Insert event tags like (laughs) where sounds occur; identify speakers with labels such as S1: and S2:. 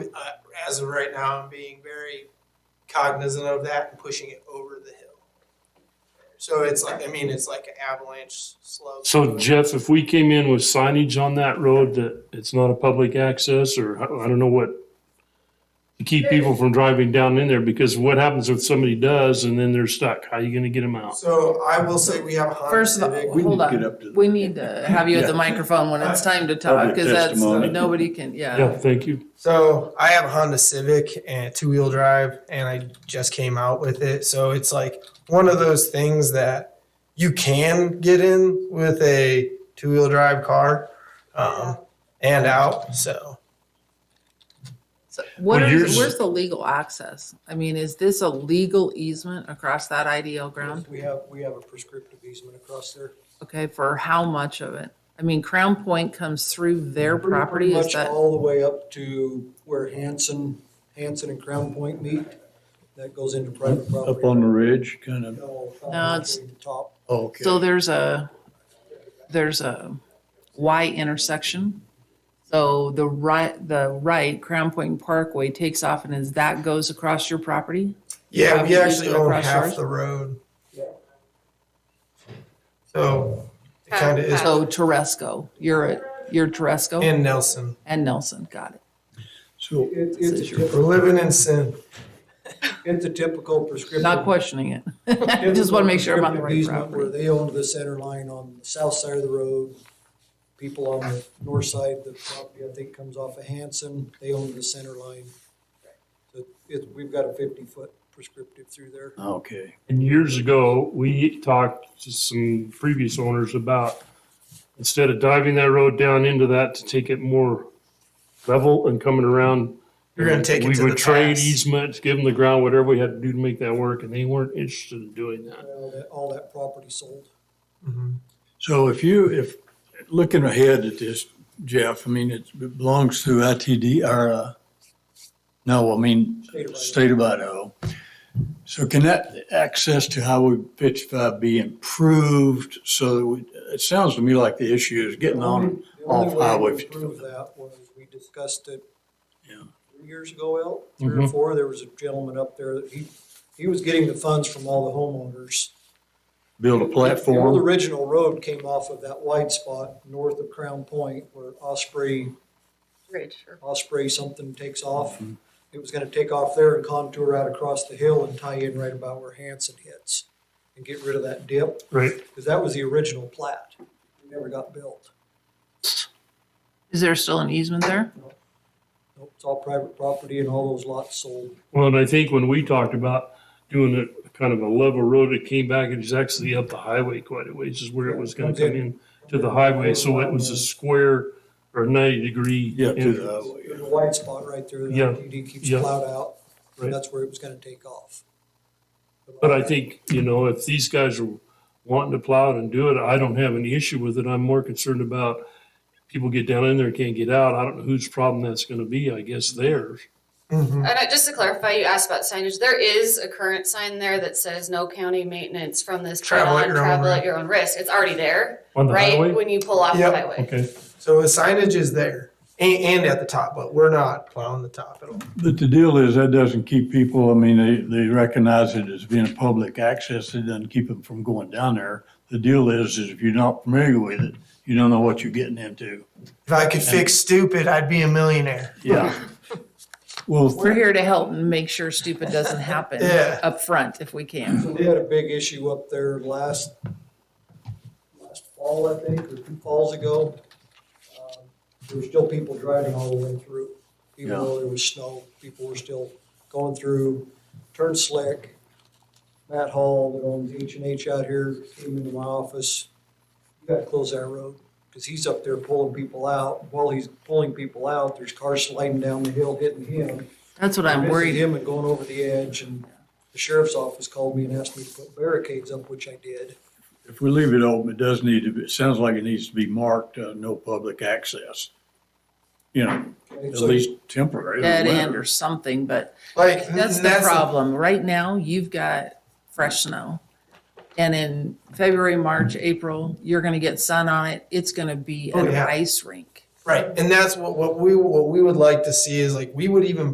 S1: uh, as of right now, I'm being very cognizant of that and pushing it over the hill. So it's like, I mean, it's like an avalanche slope.
S2: So Jeff, if we came in with signage on that road that it's not a public access or I I don't know what, to keep people from driving down in there because what happens if somebody does and then they're stuck? How are you gonna get them out?
S1: So I will say we have a Honda
S3: First of
S1: Civic.
S3: all,
S4: We need
S3: hold
S4: to get
S3: on.
S4: up to the-
S3: We need to have you at the
S2: Yeah.
S3: microphone when it's time to talk,
S4: Public
S3: because that's, uh,
S4: testimony.
S3: nobody can, yeah.
S2: Yeah, thank you.
S1: So I have a Honda Civic and two wheel drive, and I just came out with it. So it's like one of those things that you can get in with a two wheel drive car um, and out. So
S3: So What
S2: Well,
S3: are,
S2: yours-
S3: where's the legal access? I mean, is this a legal easement across that IDL ground?
S5: We have, we have a prescriptive easement across there.
S3: Okay, for how much of it? I mean, Crown Point comes through their property,
S5: Pretty
S3: is
S5: much
S3: that,
S5: All the way up to where Hanson, Hanson and Crown Point meet. That goes into private property.
S4: Up on the ridge, kind of.
S5: No,
S3: No, it's-
S5: the Top.
S4: Okay.
S3: so there's a, there's a Y intersection. So the right, the right Crown Point Parkway takes off and is that goes across your property?
S1: yeah, we
S3: Probably
S1: actually
S3: go
S1: own
S3: across
S1: half
S3: yours.
S1: the road.
S5: Yeah.
S1: So it kind of is
S3: So Teresco, you're at, you're Teresco?
S1: in Nelson.
S3: And Nelson, got it.
S4: So
S5: It, it's a
S3: Says your-
S1: We're
S5: typical,
S1: living in sin.
S5: it's a typical prescriptive.
S3: Not questioning it. (laughs) I just want to make sure I'm on the
S5: prescriptive
S3: right
S5: easement Where
S3: property.
S5: they own the center line on the south side of the road. People on the north side, the property I think comes off of Hanson, they own the center line. So it, we've got a fifty-foot prescriptive through there.
S4: okay.
S2: And years ago, we talked to some previous owners about instead of diving that road down into that to take it more level and coming around.
S1: You're gonna take it
S2: Mm-hmm. We
S1: to
S2: would
S1: the
S2: trade
S1: pass.
S2: easements, give them the ground, whatever we had to do to make that work, and they weren't interested in doing that.
S5: All that, all that property sold.
S1: Mm-hmm.
S4: So if you, if, looking ahead at this, Jeff, I mean, it's- it belongs to ITD or, uh, no, I mean,
S5: State of Idaho.
S4: state of Idaho. So can that access to Highway fifty-five be improved? So that we- it sounds to me like the issue is getting on,
S5: The only
S4: off
S5: way to
S4: Highway
S5: improve
S4: fifty-five.
S5: that was, we discussed it
S4: Yeah.
S5: three years ago, Al, three or
S4: Mm-hmm.
S2: Mhm.
S5: four, there was a gentleman up there that he, he was getting the funds from all the homeowners.
S4: Build a
S5: The old
S4: platform.
S5: original road came off of that wide spot north of Crown Point where Osprey, Osprey something takes off. It was gonna take off there and contour out across the hill and tie in right about where Hanson hits and get rid of that dip.
S2: Right.
S5: Because that was the original plat. It never got built.
S3: Is there still an easement there?
S5: Nope, It's all private property and all those lots sold.
S2: Well, and I think when we talked about doing a kind of a level road, it came back and it's actually up the highway quite a ways is where it was gonna come in to the highway, so it was a square or ninety degree.
S4: Yeah, to the
S2: entrance.
S4: highway.
S5: There's a wide spot right there that
S2: Yeah,
S5: ITD keeps
S2: yeah.
S5: plowed out.
S2: Right.
S5: And that's where it was gonna take off.
S2: But I think, you know, if these guys are wanting to plow it and do it, I don't have any issue with it. I'm more concerned about people get down in there and can't get out. I don't know whose problem that's gonna be. I guess theirs.
S1: Mhm.
S6: And I- just to clarify, you asked about signage. There is a current sign there that says no county maintenance from this point
S1: Travel at
S6: on,
S1: your own
S6: travel
S1: risk.
S6: at your own risk. It's already there,
S2: On the
S6: right?
S2: highway?
S6: When you pull off the
S1: Yep.
S6: highway.
S2: Okay.
S1: So the signage is there and, and at the top, but we're not plowing the top at all.
S4: But the deal is, that doesn't keep people, I mean, they, they recognize it as being public access, it doesn't keep them from going down there. The deal is, is if you're not familiar with it, you don't know what you're getting into.
S1: If I could fix stupid, I'd be a millionaire.
S4: Yeah. (laughs) Well,
S3: We're here to help and make sure stupid doesn't happen
S1: Yeah.
S3: up front if we can.
S5: We had a big issue up there last, last fall, I think, or two falls ago. Um, There were still people driving all the way through, even though there was snow. People were still going through, turned slick. Matt Hall, that owns H and H out here, came into my office. You gotta close that road, because he's up there pulling people out. While he's pulling people out, there's cars sliding down the hill hitting him.
S3: That's what I'm
S5: Missing
S3: worried.
S5: Him and going over the edge and the sheriff's office called me and asked me to put barricades up, which I did.
S4: if we leave it open, it does need to be, it sounds like it needs to be marked, uh, no public access. You know,
S5: And
S4: at
S5: so
S4: least temporary.
S3: Dead end or something, but
S1: Like
S3: that's
S1: and
S3: the problem. Right now, you've got fresh snow. And in February, March, April, you're gonna get sun on it. It's gonna be
S1: Oh,
S3: an
S1: yeah.
S3: ice rink.
S1: Right, and that's what, what we, what we would like to see is like, we would even